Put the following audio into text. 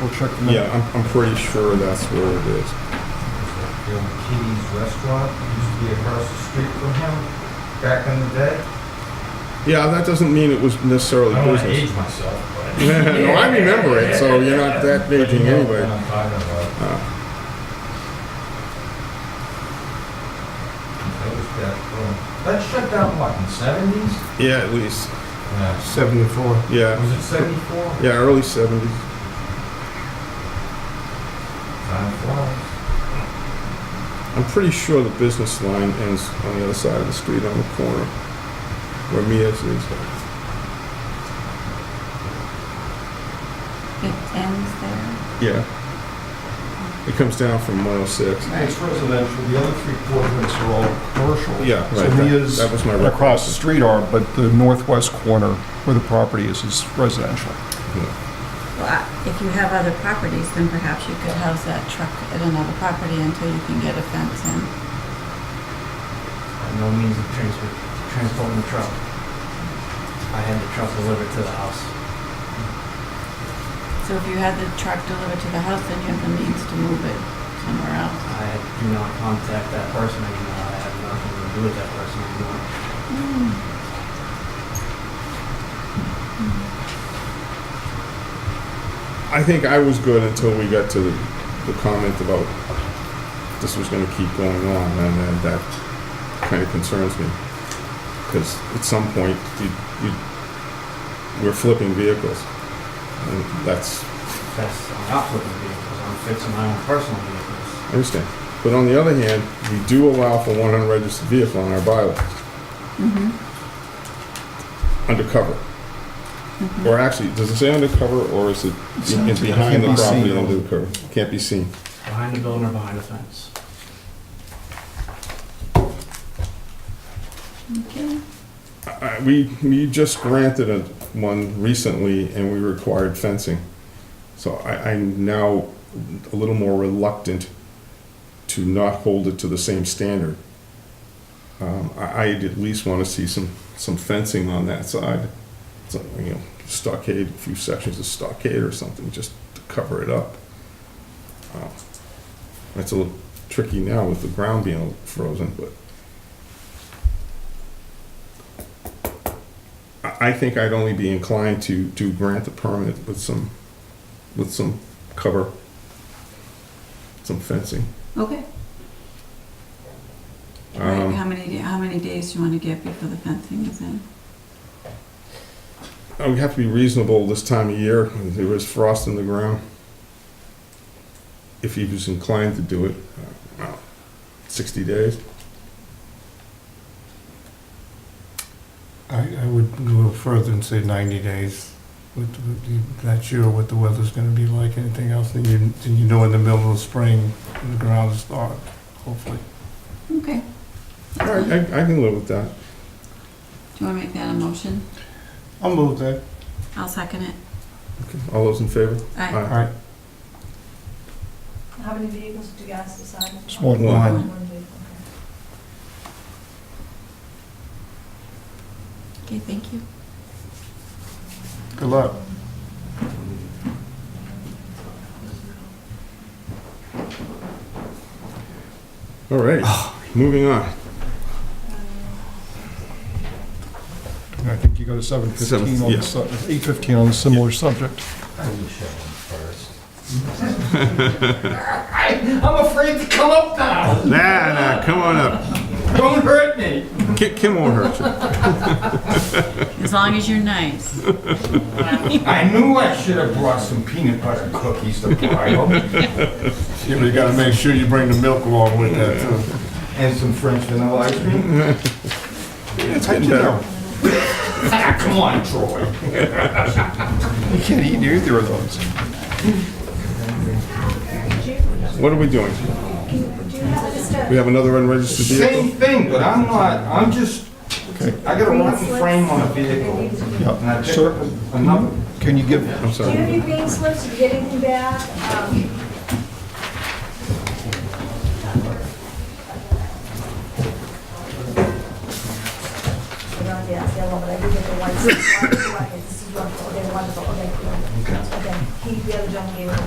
We'll check from Yeah, there. I'm, I'm pretty sure that's where it is. The old Kitty's Restaurant used to be across the street from him back in the day. Yeah, that doesn't mean it was Oh, I necessarily don't want to business. age myself, but. no, I remember it, so you're not that But Oh. you aging know what anyway. I'm talking about. That was that, uh, That shut down, what, in seventies? Yeah, at least. Yeah. Seventy-four. Yeah, Was it seventy-four? yeah, early 70s. Time flies. I'm pretty sure the business line ends on the other side of the street on the corner where Mia's is. It ends there. Yeah. It comes down from 106. It's residential, the other three quadrants are all commercial. Yeah, So right, that- Mia's that was my and across the street are, but the northwest corner where the property is, is residential. Well, I- if you have other properties, then perhaps you could house that truck at another property until you can get a fence in. By no means of transfer, transporting the truck. I had the truck delivered to the house. So if you had the truck delivered to the house, then you have the means to move it somewhere else. I do not contact that person anymore. I have nothing to do with that person anymore. I think I was good until we got to the, the comment about this was going to keep going on, and then that kind of concerns me because at some point you, you we're flipping vehicles, and that's That's, I'm not flipping vehicles. I'm fixing my own personal vehicles. I understand. But on the other hand, we do allow for one unregistered vehicle in our bylaws Mm-hmm. undercover, or actually, does it say undercover or is it in, in behind the Can't be seen. property undercover? Can't be seen. Behind the building or behind a fence. Okay. I- We, we just granted a, one recently and we required fencing. So I, I'm now a little more reluctant to not hold it to the same standard. Um, I, I'd at least wanna see some, some fencing on that side. So, you know, stockade, a few sections of stockade or something, just to cover it up. Um, That's a little tricky now with the ground being frozen, but I I think I'd only be inclined to, to grant the permit with some, with some cover, some fencing. Okay. Right, Um, how many, how many days do you want to get before the fencing is in? uh, We have to be reasonable this time of year, when there is frost in the ground. If he was inclined to do it, uh, well, sixty days. I, I would go further and say 90 days. With, with the- not sure what the weather's going to be like, anything else, then you, then you know in the middle of spring, when the ground is thawed, hopefully. Okay. All right, I, I can live with that. Do you want to make that a motion? I'll move that. I'll second it. Okay, All those in favor? Aye. All right. How many vehicles did you guys decide? It's more than One. mine. One vehicle, okay. Okay, thank you. Good luck. All right, moving on. And I think you go to seven fifteen on Seven, yeah. the, eight fifteen on a similar subject. I will show him first. I'm afraid to come up now. Nah, nah, come on up. Don't hurt me. Kim, Kim won't hurt you. As long as you're nice. I knew I should have brought some peanut butter cookies to borrow You know, you gotta make sure you bring the milk along with that, too. and some French vanilla ice cream. It's getting better. Ah, Come on, Troy. You can't eat either of those. What are we doing? We have another unregistered Same vehicle? thing, but I'm not, I'm just, Okay. I got a rotten frame on a vehicle. And I Yeah, picked up sir, another, can you give, I'm Do you have sorry. any green slips? Did you get anything back? Um, I don't get the yellow, but I did get the white. This is wonderful, okay, wonderful, okay. Okay, he, the other gentleman gave it.